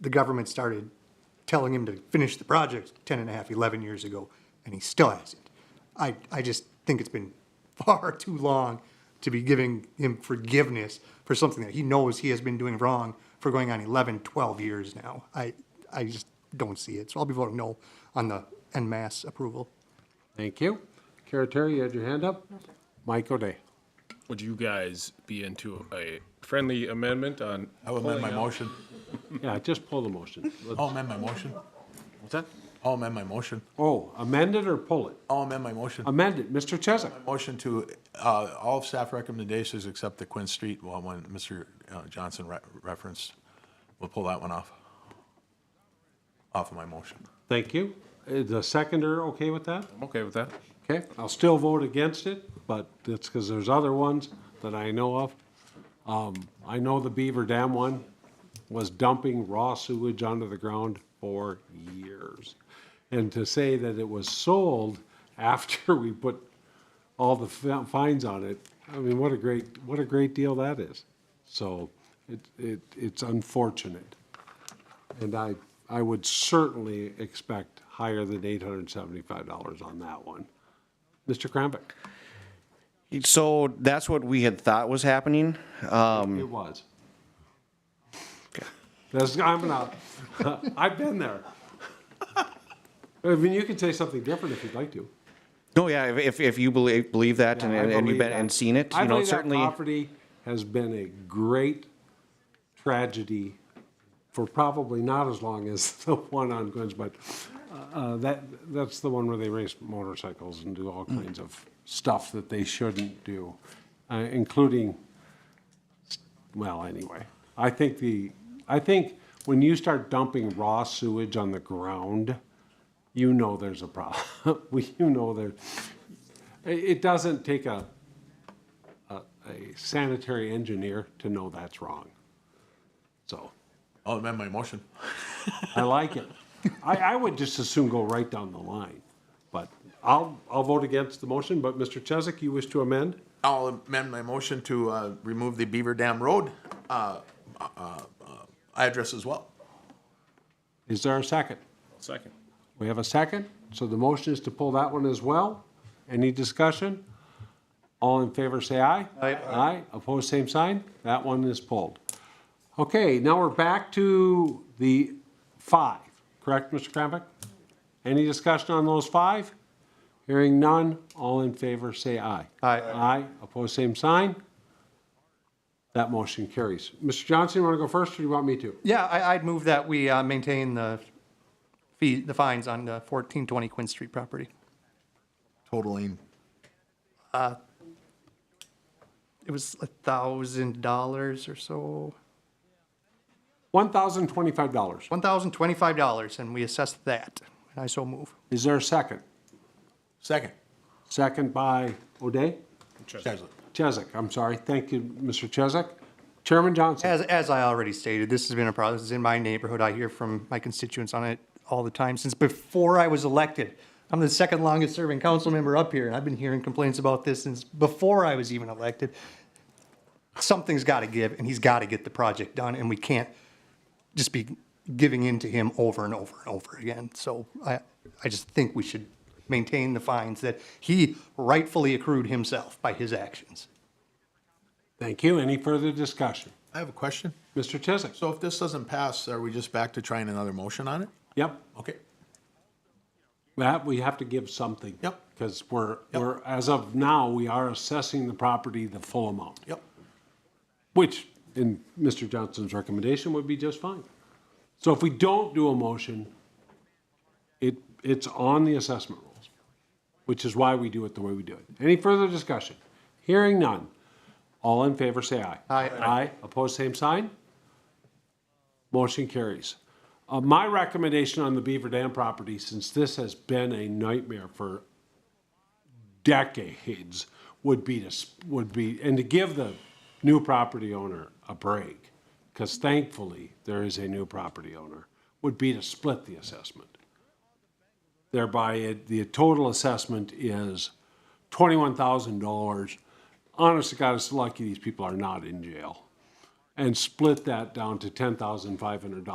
the government started telling him to finish the project 10 and a half, 11 years ago, and he still hasn't. I, I just think it's been far too long to be giving him forgiveness for something that he knows he has been doing wrong for going on 11, 12 years now. I, I just don't see it. So I'll be voting no on the en masse approval. Thank you. Kara Terry, you had your hand up? Mike O'Day. Would you guys be into a friendly amendment on? I will amend my pulling out- motion. Yeah, just pull the motion. Let's- I'll amend my motion. What's that? I'll amend my motion. Oh, amend it or pull it? I'll amend my motion. Amend it. Mr. Chesak. Motion to, uh, all of staff recommendations except the Quinn Street one, when Mr. uh, Johnson re- referenced. We'll pull that one off. Off of my motion. Thank you. Is Uh, the seconder okay with that? I'm okay with that. Okay, I'll still vote against it, but it's because there's other ones that I know of. Um, I know the Beaver Dam one was dumping raw sewage under the ground for years. And to say that it was sold after we put all the fi- fines on it, I mean, what a great, what a great deal that is. So it, it, it's unfortunate. And I, I would certainly expect higher than eight hundred and seventy-five dollars on that one. Mr. Krambeck? So that's what we had thought was happening. Um, It was. That's, I'm not, I've been there. I mean, you could say something different if you'd like to. no, yeah, if- if, if you believe, believe that and, I and and believe you've been, that. and seen it, I you know, believe that certainly. Property has been a great tragedy for probably not as long as the one on Gwen's, but uh, uh, that, that's the one where they race motorcycles and do all Mm. kinds of stuff that they shouldn't do, uh, including, well, anyway. I think the, I think when you start dumping raw sewage on the ground, you know there's a problem. We, you know there, it it doesn't take a, a- a sanitary engineer to know that's wrong. So, I'll amend my motion. I like it. I, I would just as soon go right down the line, but I'll, I'll vote against the motion, but Mr. Chesak, you wish to amend? I'll amend my motion to, uh, remove the Beaver Dam Road, uh, uh, uh, address as well. Is there a second? Second. We have a second, so the motion is to pull that one as well. Any discussion? All in favor, say aye. Aye. Aye, opposed, same sign. That one is pulled. Okay, now we're back to the five, correct, Mr. Krambeck? Any discussion on those five? Hearing none, all in favor, say aye. Aye. Aye, opposed, same sign. That motion carries. Mr. Johnson, you want to go first, or do you want me to? Yeah, I, I'd move that we uh, maintain the fee, the fines on the 1420 Quinn Street property. Totaling It was a $1,000 or so. $1,025. $1,025, and we assessed that, and I so move. Is there a second? second. Second by O'Day? Chesley. Chesak, I'm sorry. Thank you, Mr. Chesak. Chairman Johnson, As, as I already stated, this has been a problem. This is in my neighborhood. I hear from my constituents on it all the time since before I was elected. I'm the second longest serving council member up here, and I've been hearing complaints about this since before I was even elected. Something's got to give, and he's got to get the project done, and we can't just be giving in to him over and over and over again. So I, I just think we should maintain the fines that he rightfully accrued himself by his actions. thank you. Any further discussion? I have a question. Mr. Chesak? So if this doesn't pass, are we just back to trying another motion on it? Yep, Okay. that, we have to give something. Yep. Because we're, Yep. we're, as of now, we are assessing the property the full amount. Yep. Which, in Mr. Johnson's recommendation, would be just fine. So if we don't do a motion, it, it's on the assessment rules, which is why we do it the way we do it. Any further discussion? Hearing none. All in favor, say aye. Aye. Aye. Opposed, same sign? Motion carries. Uh, my recommendation on the Beaver Dam property, since this has been a nightmare for decades would be to, s- would be, and to give the new property owner a break, because thankfully, there is a new property owner, would be to split the assessment. Thereby, it, the total assessment is twenty-one thousand dollars. Honest to God, it's lucky these people are not in jail. And split that down to ten thousand five hundred dollars